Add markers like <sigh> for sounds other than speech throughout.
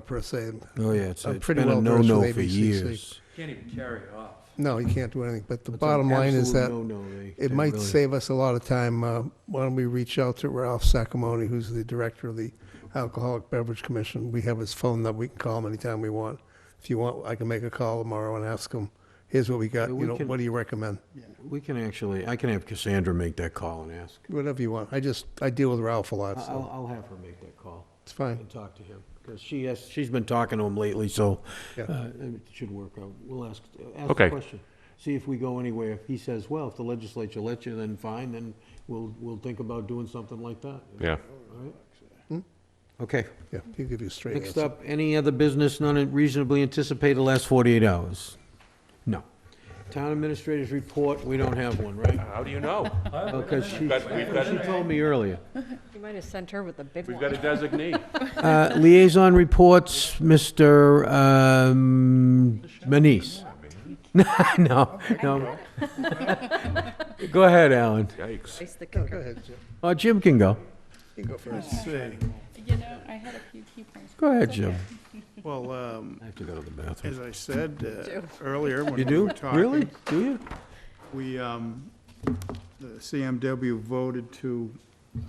per se. Oh, yeah, it's, I'm it's pretty been a well versed no-no with for ABCC. years. Can't even carry it off. No, you can't do anything, but the It's an bottom line is absolute that no-no. They- it they might really- save us a lot of time. Uh, Why don't we reach out to Ralph Sacamone, who's the director of the Alcoholic Beverage Commission? We have his phone number. We can call him anytime we want. If you want, I can make a call tomorrow and ask him, here's what we got, Yeah, you we know, can- what do you recommend? We can actually, I can have Cassandra make that call and ask. Whatever you want. I just, I deal with Ralph a lot, I'll, so I'll have her make that call it's fine. and talk to him, because she has, she's been talking to him lately, so Yeah. uh, it should work out. We'll ask, ask the Okay. question. See if we go anywhere. If he says, well, if the legislature lets you, then fine, then we'll, we'll think about doing something like that. Yeah. All right? Okay. Yeah, he'll give you a straight Next answer. up, any other business not reasonably anticipated last 48 hours? No. Town administrators report, we don't have one, right? How do you know? Because she, We've got, we've got, she told me <laughs> earlier. You might have sent her with the big we've got one. a designee. Uh, Liaison reports, Mr. um, Manise. <laughs> No, no. Go ahead, Alan. Yikes. Ice the Go <laughs> kicker. ahead, Jim. Oh, Jim can go. You can go first. You know, I had a few key points. Go ahead, Jim. Well, um, I have to go to the bathroom. as I said uh, earlier when You we do? were talking. Really? Do you? We, um, the CMW voted to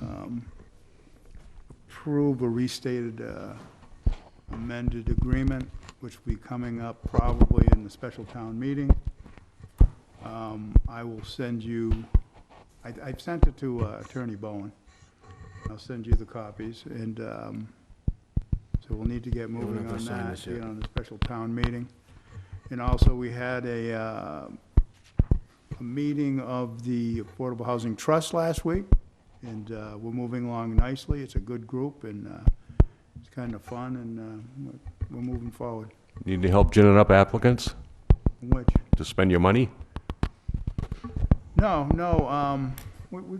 um, approve a restated uh, amended agreement, which will be coming up probably in the special town meeting. Um, I will send you, I- I've sent it to uh, Attorney Bowen. I'll send you the copies, and um, so we'll need to get don't moving have to on sign that, this yet. get on the special town meeting. And also, we had a, uh, a meeting of the Affordable Housing Trust last week, and uh, we're moving along nicely. It's a good group, and uh, it's kind of fun, and uh, we're- we're moving forward. Need any help ginning up applicants Which, to spend your money? no, no, um, we, we,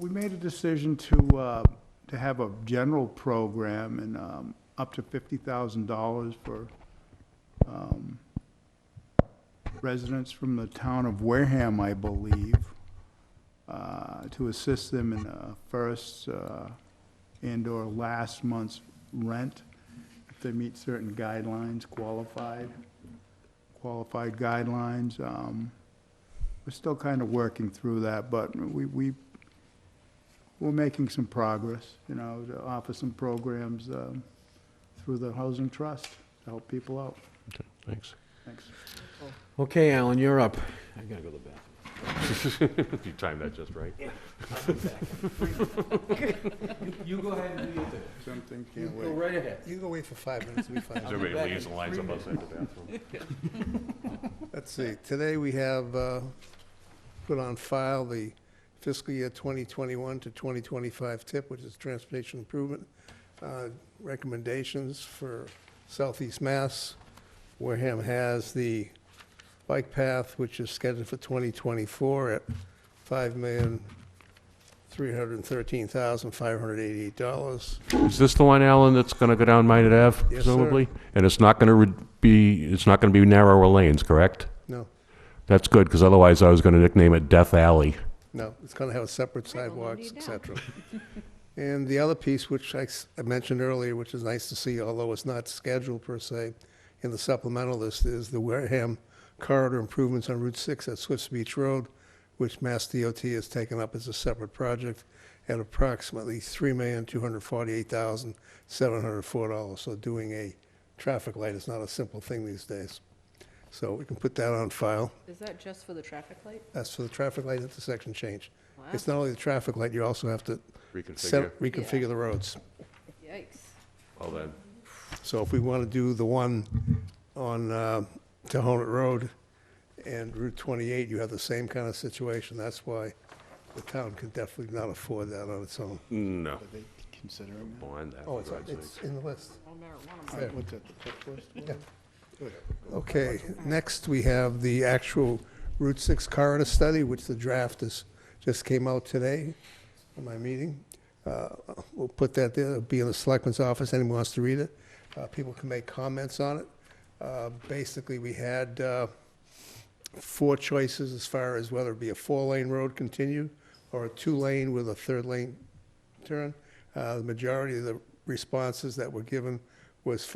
we made a decision to, uh, to have a general program and um, up to fifty thousand dollars for um, residents from the town of Wareham, I believe, uh, to assist them in uh, first uh, and/or last month's rent if they meet certain guidelines, qualified, qualified guidelines. Um, We're still kind of working through that, but we, we, we're making some progress, you know, to offer some programs um, through the Housing Trust to help people out. Okay, Thanks. Thanks. Okay, Alan, you're up. I gotta go to the bathroom. <laughs> You timed that just right. You go ahead and do your thing. Something You can't Go wait. right ahead. You go wait for five minutes, we'll be fine. As everybody leaves and lines up outside the <laughs> bathroom. Let's see, today we have uh, put on file the fiscal year 2021 to 2025 tip, which is transportation improvement uh, recommendations for Southeast Mass. Wareham has the bike path, which is scheduled for 2024 at $5,313,588. Is this the one, Alan, that's gonna go down Minot Ave Yes, sir. presumably? And it's not gonna re- be, it's not gonna be narrower lanes, correct? No, That's good, because otherwise I was gonna nickname it Death Alley. No, it's going to have a separate Right, well, sidewalks, no need et now. <laughs> cetera. And the other piece, which I s- I mentioned earlier, which is nice to see, although it's not scheduled per se, in the supplemental list is the Wareham corridor improvements on Route 6 at Swifts Beach Road, which Mass DOT has taken up as a separate project at approximately $3,248,704. So doing a traffic light is not a simple thing these days. So we can put that on file. Is that just for the traffic light? That's for the traffic light intersection change. Wow, It's not only the traffic light, you also have to Reconfigure. set- reconfigure the roads. yikes. Well then. So if we want to do the one on uh, Tohonet Road and Route 28, you have the same kind of situation. That's why the town can definitely not afford that on its own. No. Are they considering that? Blind that, Oh, for it's, God's it's sake. in the list. No marijuana. There. What's that, the tip list? Okay, next we have the actual Route 6 corridor study, which the draft is, just came out today in my meeting. Uh, We'll put that there, it'll be in the selectman's office, anyone wants to read it. Uh, People can make comments on it. Uh, Basically, we had uh, four choices as far as whether it be a four-lane road continued or a two-lane with a third lane turn. Uh, The majority of the responses that were given was